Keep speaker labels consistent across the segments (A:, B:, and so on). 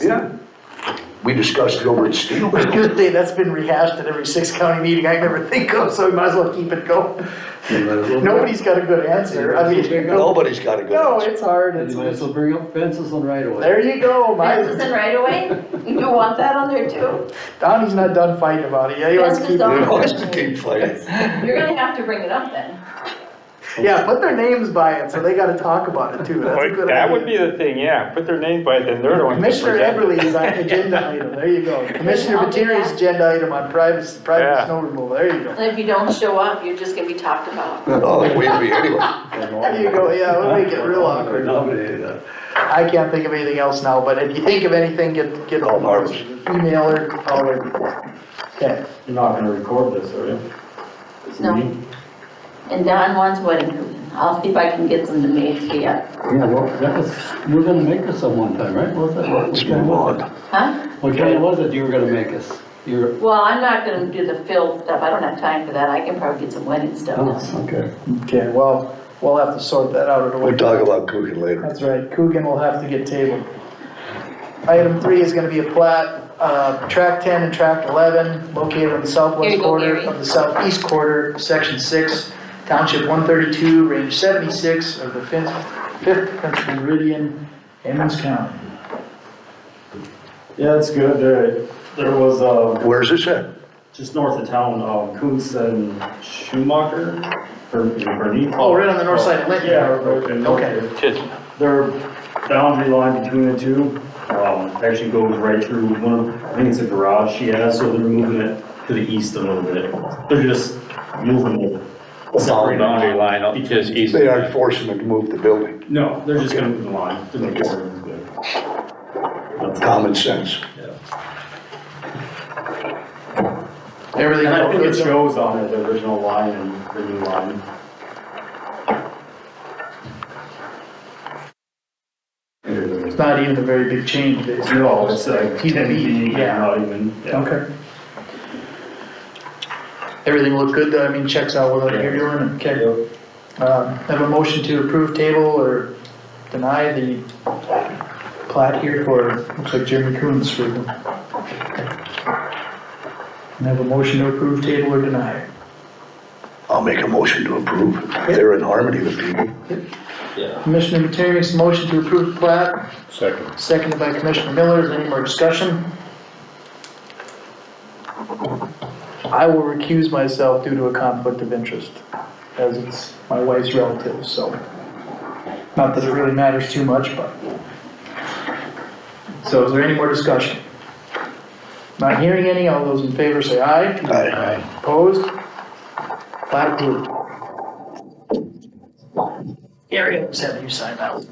A: Yeah. We discussed it over at Steel.
B: Good thing, that's been rehashed at every six county meeting I can ever think of, so we might as well keep it going. Nobody's got a good answer, I mean.
A: Nobody's got a good
B: No,
A: answer.
B: it's hard,
C: And
B: it's,
C: you might as well bring up fences on right away.
B: there you go,
D: Fences
B: my,
D: and right away, you want that on there too?
B: Donnie's not done fighting about it, yeah, he wants to keep.
D: Fences on-
A: You know, it's to keep fighting.
D: You're gonna have to bring it up then.
B: Yeah, put their names by it, so they gotta talk about it too, that's a
E: Like,
B: good
E: That would
B: idea.
E: be the thing, yeah, put their name by it, then they're the ones that
B: Commissioner
E: present it.
B: Everly is on agenda item, there you go. Commissioner
D: I'll do
B: Materi's
D: that.
B: agenda item on private, private
E: Yeah.
B: snow removal, there you go.
D: And if you don't show up, you're just gonna be talked about.
A: Oh, we'd be anyway.
B: There you go, yeah, we'll make it real awkward.
C: Nominated, uh,
B: I can't think of anything else now, but if you think of anything, get, get.
A: Call Barbara.
B: Email her, call her. Okay.
F: You're not gonna record this, are you?
D: No. And Don wants wedding cooking. I'll see if I can get them to make it up.
C: Yeah, well, that was, you were gonna make us some one time, right? What was that? What
A: Let's
C: kind
A: move
C: was
A: on.
D: Huh?
C: it? What kind was it you were gonna make us? You're,
D: Well, I'm not gonna do the fill stuff. I don't have time for that. I can probably get some wedding stuff done.
C: oh, okay.
B: Okay, well, we'll have to sort that out. at a
A: We'll
B: later-
A: talk about cooking later.
B: That's right, Coogan will have to get tabled. Item three is gonna be a plat, uh, track ten and track eleven, located on the
D: Here
B: southwest
D: you go,
B: quarter
D: Gary.
B: of the southeast quarter, section six, township one thirty-two, range seventy-six of the fifth, fifth country meridian, Emmons County.
F: Yeah, it's good, there, there was, uh,
A: Where's this at?
F: just north of town, um, Coons and Schumacher, or Bernie.
B: Oh, right on the north side of Linton.
F: Yeah, okay.
B: Okay.
E: Just-
F: Their boundary line between the two, um, actually goes right through one of, I think it's a garage she has, so they're moving it to the east a little bit. They're just moving it.
E: Solid boundary line, up just east.
A: They aren't forcing them to move the building.
F: No, they're just gonna move the line. to make it good. That's-
A: Common sense.
B: Everything.
F: And I think it
B: else-
F: shows on it, the original line and the new line.
B: It's not even a very big change, it's. uh,
F: No, it's like
B: Keep it
F: ten feet,
B: yeah.
F: not even. yeah.
B: Okay. Everything looked good, though, I mean, checks out what you're doing, okay. Um, Have a motion to approve table or deny the plat here for, looks like Jeremy Coons for them. And have a motion to approve table or deny.
A: I'll make a motion to approve. They're in harmony with people.
B: Commissioner Materi makes a motion to approve plat. Second. Seconded by Commissioner Miller, is there any more discussion? I will recuse myself due to a conflict of interest, as it's my wife's relative, so. Not that it really matters too much, but. So is there any more discussion? Not hearing any, all those in favor say aye.
A: Aye.
B: Opposed? Plat approved. Gary, I just have you sign that one.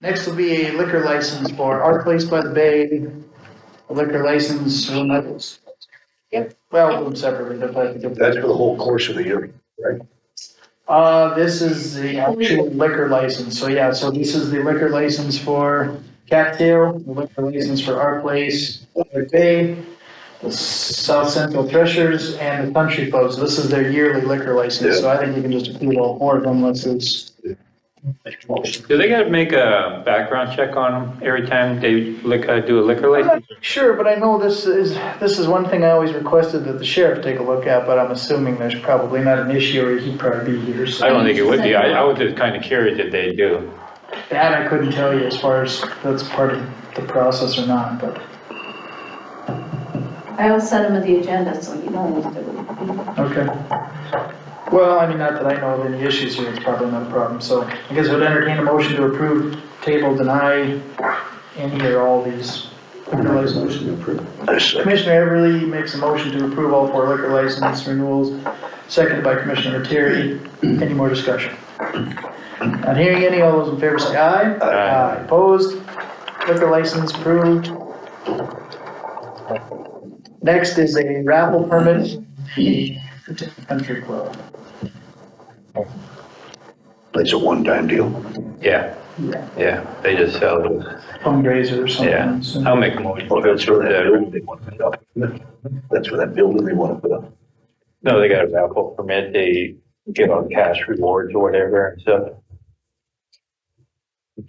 B: Next will be a liquor license for Our Place by the Bay, a liquor license, for Knuckles. Yep. Well, we'll do them separately, they're probably
A: That's
B: different.
A: for the whole course of the year, right?
B: Uh, this is the actual liquor license, so yeah, so this is the liquor license for Cattail, the liquor license for Our Place, by the Bay, the South Central Threshers, and the Country Club, so this is their yearly liquor license, so I think we can just approve all four of them unless it's.
E: Do they gotta make a background check on them every time they lick, uh, do a liquor
B: I'm not
E: license?
B: sure, but I know this is, this is one thing I always requested that the sheriff take a look at, but I'm assuming there's probably not an issue, or he'd probably be here, so.
E: I don't think it would be, I, I was just kinda curious if they do.
B: That I couldn't tell you as far as that's part of the process or not, but,
D: I will send them the agenda, so you know what to do.
B: okay. Well, I mean, not that I know of any issues here, it's probably not a problem, so I guess we'd entertain a motion to approve, table, deny any or all these. liquor licenses.
C: Motion approved.
A: I second.
B: Commissioner Everly makes a motion to approve all four liquor license renewals, seconded by Commissioner Terry. Any more discussion? Not hearing any, all those in favor say aye.
E: Aye.
B: Opposed? Liquor license approved. Next is a raffle permit, Country Club.
A: It's a one-time deal.
E: Yeah, yeah, they just sell those,
B: fundraiser or
E: yeah.
B: something. so-
E: I'll make a motion.
A: Well, that's for that building they want to put up. That's for that building they want to put up.
E: No, they got a raffle permit, they give out cash rewards or whatever, and so